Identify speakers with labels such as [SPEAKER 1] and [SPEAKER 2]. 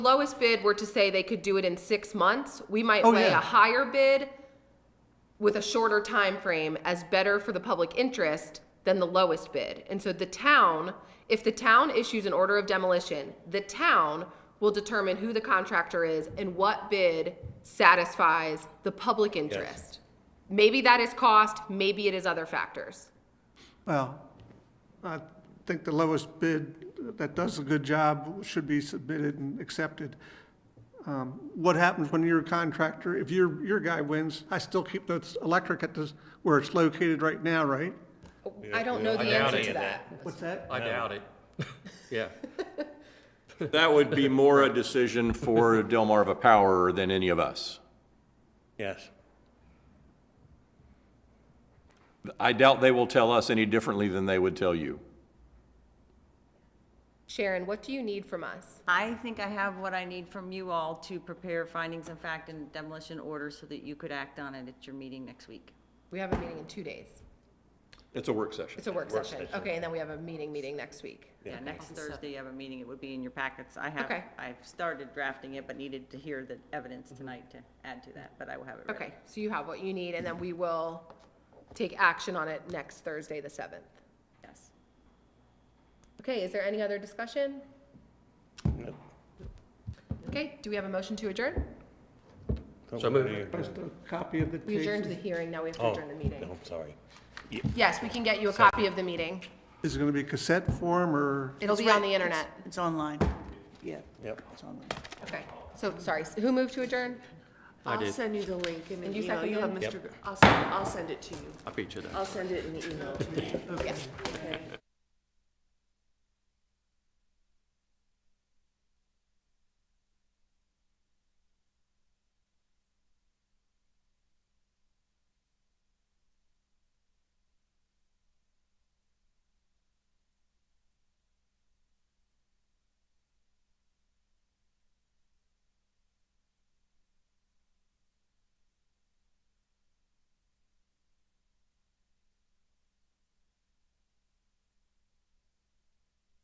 [SPEAKER 1] lowest bid were to say they could do it in six months, we might
[SPEAKER 2] Oh,
[SPEAKER 1] lay
[SPEAKER 2] yeah.
[SPEAKER 1] a higher bid with a shorter time frame as better for the public interest than the lowest bid. And so the town, if the town issues an order of demolition, the town will determine who the contractor is and what bid satisfies the public interest. Maybe that is cost, maybe it is other factors.
[SPEAKER 2] Well, I think the lowest bid that does a good job should be submitted and accepted. Um, What happens when you're a contractor, if your, your guy wins, I still keep the electric at this, where it's located right now, right?
[SPEAKER 1] I don't know the
[SPEAKER 3] I doubt
[SPEAKER 1] answer
[SPEAKER 3] any
[SPEAKER 1] to
[SPEAKER 3] of
[SPEAKER 1] that.
[SPEAKER 2] What's that?
[SPEAKER 3] I doubt it. Yeah.
[SPEAKER 4] That would be more a decision for Delmarva Power than any of us.
[SPEAKER 5] Yes.
[SPEAKER 4] I doubt they will tell us any differently than they would tell you.
[SPEAKER 1] Sharon, what do you need from us?
[SPEAKER 6] I think I have what I need from you all to prepare findings of fact and demolition order so that you could act on it at your meeting next week.
[SPEAKER 1] We have a meeting in two days.
[SPEAKER 4] It's a work session.
[SPEAKER 1] It's a work
[SPEAKER 5] Work
[SPEAKER 1] session.
[SPEAKER 5] session.
[SPEAKER 1] Okay, and then we have a meeting, meeting next week.
[SPEAKER 6] Yeah, next Thursday you have a meeting, it would be in your packets. I have,
[SPEAKER 1] Okay.
[SPEAKER 6] I've started drafting it, but needed to hear the evidence tonight to add to that, but I will have it ready.
[SPEAKER 1] Okay, so you have what you need, and then we will take action on it next Thursday, the 7th.
[SPEAKER 6] Yes.
[SPEAKER 1] Okay, is there any other discussion? Okay, do we have a motion to adjourn?
[SPEAKER 3] So move.
[SPEAKER 2] Just a copy of the
[SPEAKER 1] We adjourned the
[SPEAKER 2] case.
[SPEAKER 1] hearing, now we have to
[SPEAKER 5] Oh,
[SPEAKER 1] adjourn the meeting.
[SPEAKER 5] no, I'm sorry.
[SPEAKER 1] Yes, we can get you a copy of the meeting.
[SPEAKER 2] Is it going to be cassette form or?
[SPEAKER 1] It'll be on the internet.
[SPEAKER 7] It's online. Yeah,
[SPEAKER 5] Yep.
[SPEAKER 7] it's online.
[SPEAKER 1] Okay, so, sorry, s- who moved to adjourn?
[SPEAKER 3] did.
[SPEAKER 8] I'll send you the link in
[SPEAKER 1] And
[SPEAKER 8] an
[SPEAKER 1] you
[SPEAKER 8] email.
[SPEAKER 1] second
[SPEAKER 8] You'll have
[SPEAKER 1] that?
[SPEAKER 8] Mr. Gr- I'll, send- I'll send it to you.
[SPEAKER 3] I beat you to that.
[SPEAKER 8] I'll send it in the email to you.
[SPEAKER 1] Yeah.
[SPEAKER 8] Okay.